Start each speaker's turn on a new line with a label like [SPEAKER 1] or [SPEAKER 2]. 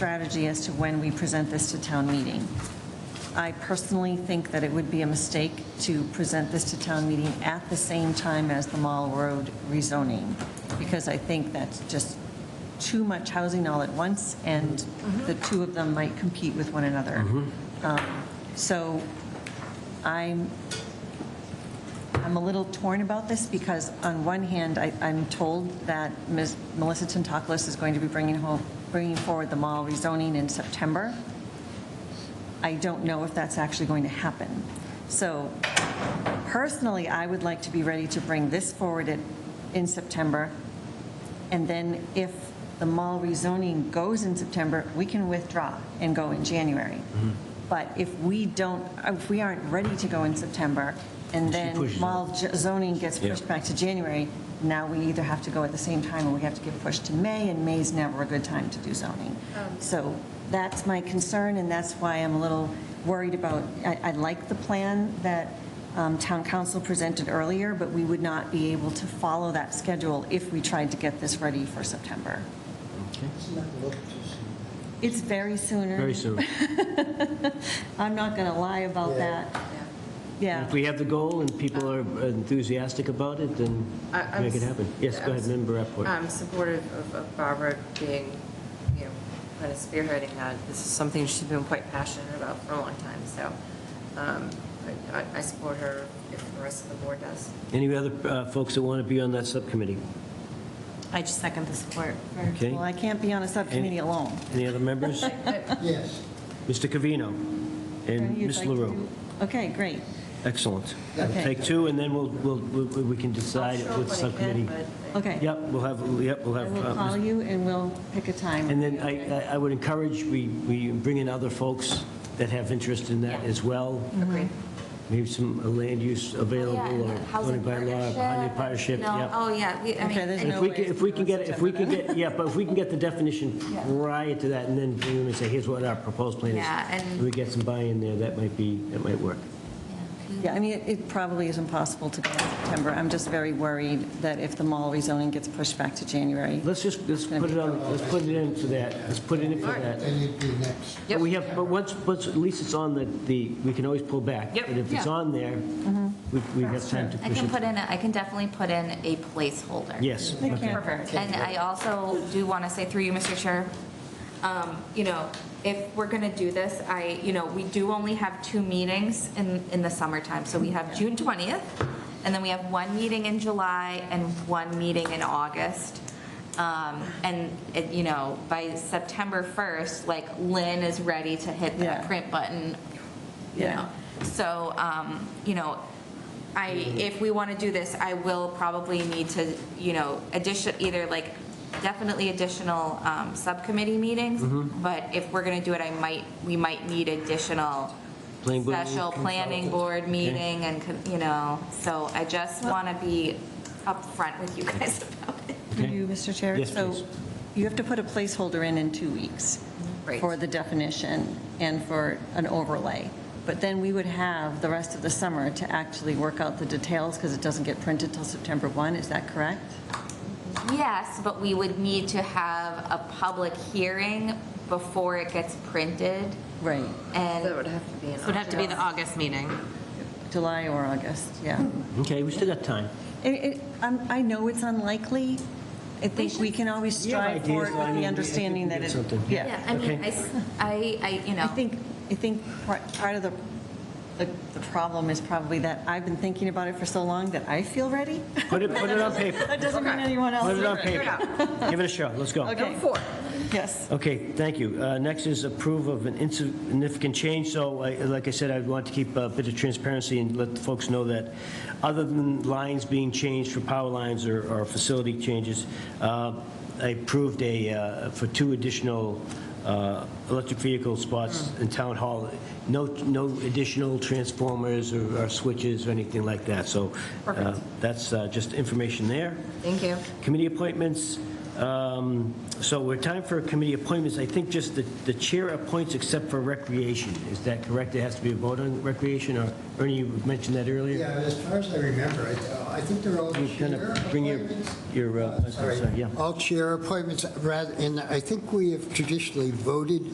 [SPEAKER 1] strategy as to when we present this to town meeting. I personally think that it would be a mistake to present this to town meeting at the same time as the Mall Road rezoning, because I think that's just too much housing all at once, and the two of them might compete with one another. Um, So I'm, I'm a little torn about this because on one hand, I, I'm told that Ms. Melissa Tantakis is going to be bringing home, bringing forward the mall rezoning in September. I don't know if that's actually going to happen. So personally, I would like to be ready to bring this forward in- in September. And then if the mall rezoning goes in September, we can withdraw and go in January. But if we don't, if we aren't ready to go in September, and then mall j- zoning gets pushed back to January, now we either have to go at the same time, or we have to give push to May, and May's never a good time to do zoning. So that's my concern, and that's why I'm a little worried about, I, I like the plan that um, town council presented earlier, but we would not be able to follow that schedule if we tried to get this ready for September. It's very sooner.
[SPEAKER 2] Very soon.
[SPEAKER 1] I'm not going to lie about
[SPEAKER 3] Yeah.
[SPEAKER 1] that. Yeah.
[SPEAKER 2] If we have the goal and people are enthusiastic about it, then
[SPEAKER 4] I- I'm
[SPEAKER 2] make it
[SPEAKER 4] s-
[SPEAKER 2] happen. Yes, go
[SPEAKER 4] I'm
[SPEAKER 2] ahead,
[SPEAKER 4] s- uh,
[SPEAKER 2] member Rapport.
[SPEAKER 4] I'm Um, supportive of- of Barbara being, you know, kind of spearheading that. This is something she's been quite passionate about for a long time, so um, I- I- I support her if the rest of the board does.
[SPEAKER 2] Any other uh, folks that want to be on that subcommittee?
[SPEAKER 5] I just second the support.
[SPEAKER 2] Okay.
[SPEAKER 1] Well, I can't be on a subcommittee alone.
[SPEAKER 2] Any other members?
[SPEAKER 3] Yes,
[SPEAKER 2] Mr. Covino and
[SPEAKER 1] You'd
[SPEAKER 2] Ms.
[SPEAKER 1] like to
[SPEAKER 2] LaRue.
[SPEAKER 1] do- Okay, great.
[SPEAKER 2] Excellent.
[SPEAKER 1] Okay.
[SPEAKER 2] Take two, and then we'll, we'll, we we can
[SPEAKER 4] I'll
[SPEAKER 2] decide
[SPEAKER 4] show up
[SPEAKER 2] with
[SPEAKER 4] when I can,
[SPEAKER 2] subcommittee.
[SPEAKER 4] but-
[SPEAKER 1] Okay.
[SPEAKER 2] Yep, we'll have, yep, we'll
[SPEAKER 1] I
[SPEAKER 2] have.
[SPEAKER 1] will
[SPEAKER 2] uh,
[SPEAKER 1] call you and we'll pick a time.
[SPEAKER 2] And then I, I- I would encourage, we, we bring in other folks that have interest in that as well.
[SPEAKER 4] Agreed.
[SPEAKER 2] Maybe some uh, land use available or zoning by law, housing partnership,
[SPEAKER 5] No,
[SPEAKER 2] yeah.
[SPEAKER 5] Oh, yeah, we, I
[SPEAKER 1] Okay, there's
[SPEAKER 5] mean,
[SPEAKER 2] And if
[SPEAKER 1] no
[SPEAKER 2] we
[SPEAKER 1] way
[SPEAKER 2] can,
[SPEAKER 1] it's
[SPEAKER 2] if we
[SPEAKER 1] due
[SPEAKER 2] can
[SPEAKER 1] in
[SPEAKER 2] get, if we can
[SPEAKER 1] September,
[SPEAKER 2] get, yeah, but if we can get the definition prior to that and then bring them and say, here's what our proposed plan is.
[SPEAKER 5] Yeah, and-
[SPEAKER 2] We get some buy-in there, that might be, that might work.
[SPEAKER 1] Yeah, I mean, it- it probably is impossible to go in September. I'm just very worried that if the mall rezoning gets pushed back to January.
[SPEAKER 2] Let's just, let's put it on, let's put it in for that, let's put it in for that.
[SPEAKER 3] then it'd be next.
[SPEAKER 2] But we have, but once, once, at least it's on the, the, we can always pull back.
[SPEAKER 4] Yep.
[SPEAKER 2] But if it's
[SPEAKER 5] Yeah. Mm-hmm.
[SPEAKER 2] on there, we, we have time to
[SPEAKER 5] I
[SPEAKER 2] push
[SPEAKER 5] can
[SPEAKER 2] it.
[SPEAKER 5] put in, a- I can definitely put in a placeholder.
[SPEAKER 2] Yes.
[SPEAKER 1] Okay.
[SPEAKER 5] And I also do want to say through you, Mr. Chair, um, you know, if we're going to do this, I, you know, we do only have two meetings in, in the summertime. So we have June 20th, and then we have one meeting in July and one meeting in August. Um, And, it- you know, by September 1st, like Lynn is ready to hit
[SPEAKER 1] Yeah.
[SPEAKER 5] that print button, you
[SPEAKER 1] Yeah.
[SPEAKER 5] know. So, um, you know, I, if we want to do this, I will probably need to, you know, addition, either like, definitely additional um, subcommittee meetings,
[SPEAKER 2] Mm-hmm.
[SPEAKER 5] but if we're going to do it, I might, we might need additional
[SPEAKER 2] Planning board
[SPEAKER 5] special
[SPEAKER 2] meeting,
[SPEAKER 5] planning
[SPEAKER 2] consultants,
[SPEAKER 5] board
[SPEAKER 2] okay.
[SPEAKER 5] meeting and, con- you know, so I just want to be upfront with you guys about it.
[SPEAKER 1] Do you, Mr. Chair?
[SPEAKER 2] Yes, please.
[SPEAKER 1] So you have to put a placeholder in in two weeks
[SPEAKER 5] Right.
[SPEAKER 1] for the definition and for an overlay. But then we would have the rest of the summer to actually work out the details because it doesn't get printed till September 1. Is that correct?
[SPEAKER 5] Yes, but we would need to have a public hearing before it gets printed
[SPEAKER 1] Right.
[SPEAKER 5] and.
[SPEAKER 4] That would have to be in
[SPEAKER 6] So it would have to be the
[SPEAKER 4] August.
[SPEAKER 6] August meeting.
[SPEAKER 1] July or August, yeah.
[SPEAKER 2] Okay, we still got time.
[SPEAKER 1] It- it- I'm- I know it's unlikely. I think we can always
[SPEAKER 2] We have
[SPEAKER 1] strive for
[SPEAKER 2] ideas,
[SPEAKER 1] it
[SPEAKER 2] I
[SPEAKER 1] with
[SPEAKER 2] mean,
[SPEAKER 1] the
[SPEAKER 2] I
[SPEAKER 1] understanding
[SPEAKER 2] think
[SPEAKER 1] that
[SPEAKER 2] we
[SPEAKER 1] it,
[SPEAKER 2] did something.
[SPEAKER 1] yeah.
[SPEAKER 5] Yeah, I mean,
[SPEAKER 2] Okay.
[SPEAKER 5] I s- I, I, you know.
[SPEAKER 1] I think, I think part part of the, the the problem is probably that I've been thinking about it for so long that I feel ready.
[SPEAKER 2] Put it, put it on paper.
[SPEAKER 1] That doesn't mean anyone else
[SPEAKER 2] Put
[SPEAKER 1] is
[SPEAKER 2] it on
[SPEAKER 1] ready.
[SPEAKER 2] paper. Give it a shot, let's go.
[SPEAKER 1] Okay.
[SPEAKER 4] Four.
[SPEAKER 1] Yes.
[SPEAKER 2] Okay, thank you. Uh, Next is approve of an insignificant change, so I- like I said, I want to keep a bit of transparency and let the folks know that other than lines being changed for power lines or or facility changes, uh, I approved a, uh, for two additional uh, electric vehicle spots in Town Hall, no, no additional transformers or or switches or anything like that, so uh, that's uh, just information there.
[SPEAKER 4] Thank you.
[SPEAKER 2] Committee appointments, um, so we're time for committee appointments. I think just the the chair appoints except for recreation. Is that correct? There has to be a vote on recreation, or Ernie, you mentioned that earlier?
[SPEAKER 3] Yeah, as far as I remember, I- I think they're all
[SPEAKER 2] You're gonna
[SPEAKER 3] chair
[SPEAKER 2] bring your-
[SPEAKER 3] appointments.
[SPEAKER 2] your, uh,
[SPEAKER 3] Uh, sorry.
[SPEAKER 2] sorry, yeah.
[SPEAKER 3] All chair appointments, rather, and I think we have traditionally voted